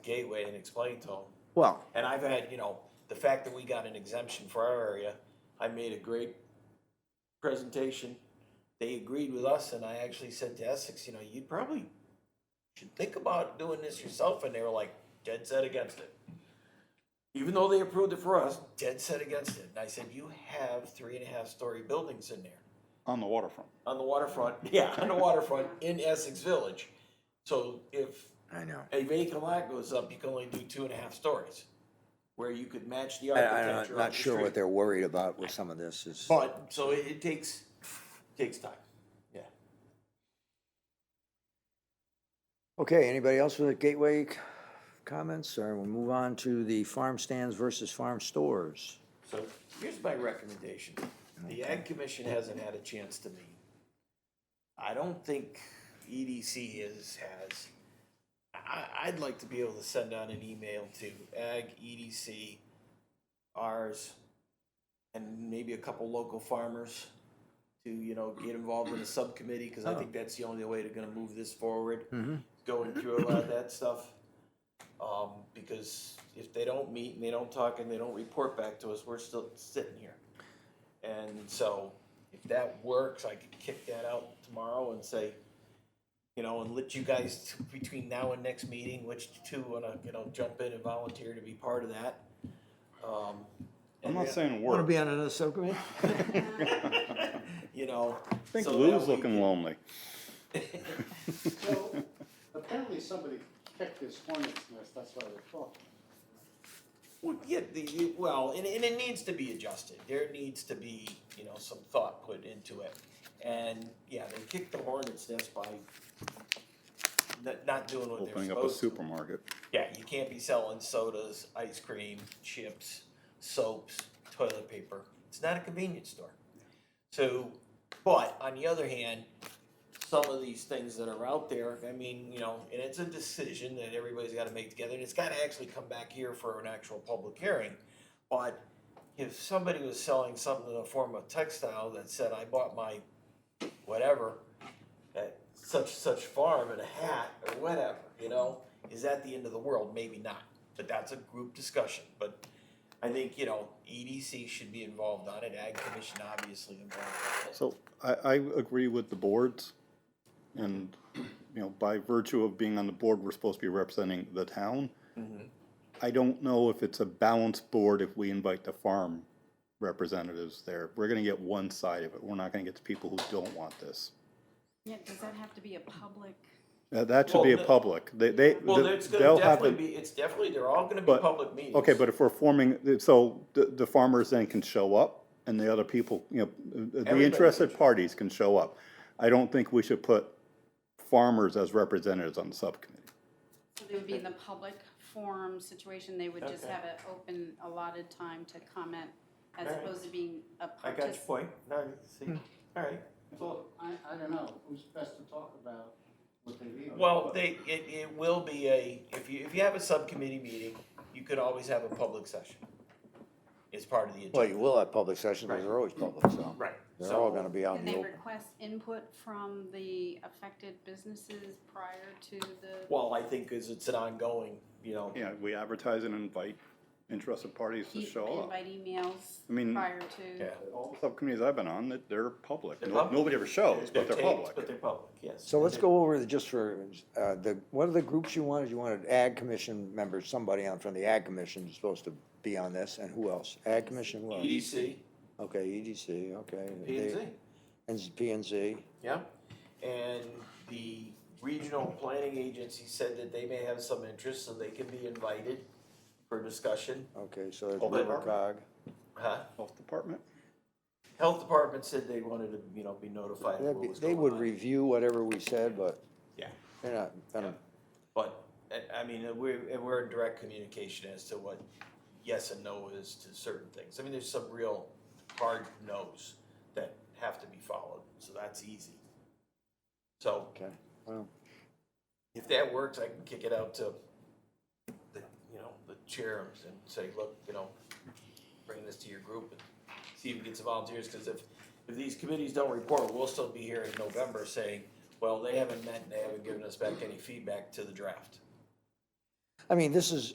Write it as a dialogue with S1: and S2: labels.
S1: Gateway and explain to them.
S2: Well,
S1: And I've had, you know, the fact that we got an exemption for our area, I made a great presentation. They agreed with us and I actually said to Essex, you know, you probably should think about doing this yourself. And they were like dead set against it. Even though they approved it for us, dead set against it. And I said, you have three and a half story buildings in there
S3: on the waterfront.
S1: on the waterfront, yeah, on the waterfront in Essex Village. So if
S2: I know.
S1: a vacant lot goes up, you can only do two and a half stories, where you could match the
S2: I, I'm
S1: architecture.
S2: not
S1: of the
S2: sure what
S1: street.
S2: they're worried about with some of this is,
S1: But, so it, it takes, takes time, yeah.
S2: okay, anybody else with Gateway c- comments, or we'll move on to the farm stands versus farm stores?
S1: So here's my recommendation. The Ag Commission hasn't had a chance to meet. I don't think EDC is, has. I, I'd like to be able to send out an email to Ag, EDC, ours, and maybe a couple local farmers to, you know, get involved in a subcommittee, because I think that's the only way to gonna move this forward.
S3: Mm-hmm.
S1: Going through a lot of that stuff. Um, because if they don't meet and they don't talk and they don't report back to us, we're still sitting here. And so if that works, I could kick that out tomorrow and say, you know, and let you guys t- between now and next meeting, which two wanna, you know, jump in and volunteer to be part of that. Um,
S3: I'm
S1: and
S3: not
S1: then-
S3: saying work.
S2: on another subcommittee?
S1: You know.
S3: I think
S1: so that
S3: Lou's
S1: we
S3: looking lonely.
S4: So, apparently somebody kicked his hornet's nest, that's why they're talking.
S1: Well, yeah, the, the- well, and, and it needs to be adjusted, there needs to be, you know, some thought put into it. And, yeah, they kicked the hornet's nest by not, not doing what they're supposed
S3: Opening
S1: to.
S3: up a supermarket.
S1: Yeah, you can't be selling sodas, ice cream, chips, soaps, toilet paper. It's not a convenience store. So, but on the other hand, some of these things that are out there, I mean, you know, and it's a decision that everybody's gotta make together, and it's gotta actually come back here for an actual public hearing. But if somebody was selling something in the form of textile that said, I bought my whatever, at such such farm and a hat or whatever, you know, is that the end of the world? Maybe not, but that's a group discussion. But I think you know EDC should be involved on it. Ag Commission obviously involved. On it.
S3: So I, I agree with the boards. And, you know, by virtue of being on the board, we're supposed to be representing the town.
S1: Mm-hmm.
S3: I don't know if it's a balanced board if we invite the farm representatives there. We're gonna get one side of it. We're not gonna get the people who don't want this.
S5: Yeah, does that have to be a public?
S3: Uh, That should be a
S1: Well, the-
S3: public. They, they,
S1: well, it's going
S3: they'll
S1: to
S3: have
S1: definitely
S3: a
S1: be. It's definitely they're all going to be
S3: But-
S1: public meetings.
S3: Okay, but if we're forming, so the, the farmers then can show up and the other people, you know, the
S1: Everybody
S3: interested
S1: can.
S3: parties can show up. I don't think we should put farmers as representatives on the subcommittee.
S5: So they would be in the public forum situation, they would just
S1: Okay.
S5: have an open allotted time to comment as
S1: Alright.
S5: opposed to being a
S1: I got your
S5: participant.
S1: point. No, you
S3: Hmm.
S1: see, all right.
S4: So, I, I don't know, who's best to talk about what they need?
S1: Well, they it, it will be a if you if you have a subcommittee meeting, you could always have a public session. It's part of the agenda.
S2: Well, you will have public sessions, because they're always public, so.
S1: Right.
S2: They're
S1: So-
S2: all gonna be out in
S5: Can
S2: the
S5: they
S2: open.
S5: request input from the affected businesses prior to the,
S1: Well, I think is it's an ongoing, you know.
S3: Yeah, we advertise and invite interested parties to
S5: e-
S3: show up.
S5: invite
S3: I
S5: emails
S3: mean-
S5: prior to?
S1: Yeah.
S3: All the subcommittees I've been on, that they're public.
S1: They're
S3: No-
S1: public.
S3: Nobody ever shows, but they're
S1: taped, But
S3: public.
S1: they're public, yes.
S2: So let's go over the, just for, uh, the, what are the groups you wanted? You wanted ag commission members, somebody on, from the ag commission is supposed to be on this, and who else? Ag commission,
S3: E
S2: who else?
S1: EDC,
S2: Okay, EDC, okay.
S1: P and Z,
S2: And P and Z,
S1: yeah. And the regional planning agency said that they may have some interest, so they can be invited for discussion.
S2: okay, so it's
S1: Open
S2: River Cog.
S1: Huh?
S3: Health department?
S1: Health department said they wanted to, you know, be notified of
S2: That'd
S1: what
S2: be-
S1: was
S2: They
S1: going
S2: would
S1: on.
S2: review whatever we said, but
S1: Yeah,
S2: they're not, gonna-
S1: but, I, I mean, we're, and we're in direct communication as to what yes and no is to certain things. I mean, there's some real hard no's that have to be followed, so that's easy. So,
S2: okay, well,
S1: if that works, I can kick it out to the, you know, the chair and say, look, you know, bring this to your group and see if we get some volunteers, cause if, if these committees don't report, we'll still be here in November saying, well, they haven't met, and they haven't given us back any feedback to the draft.
S2: I mean, this is,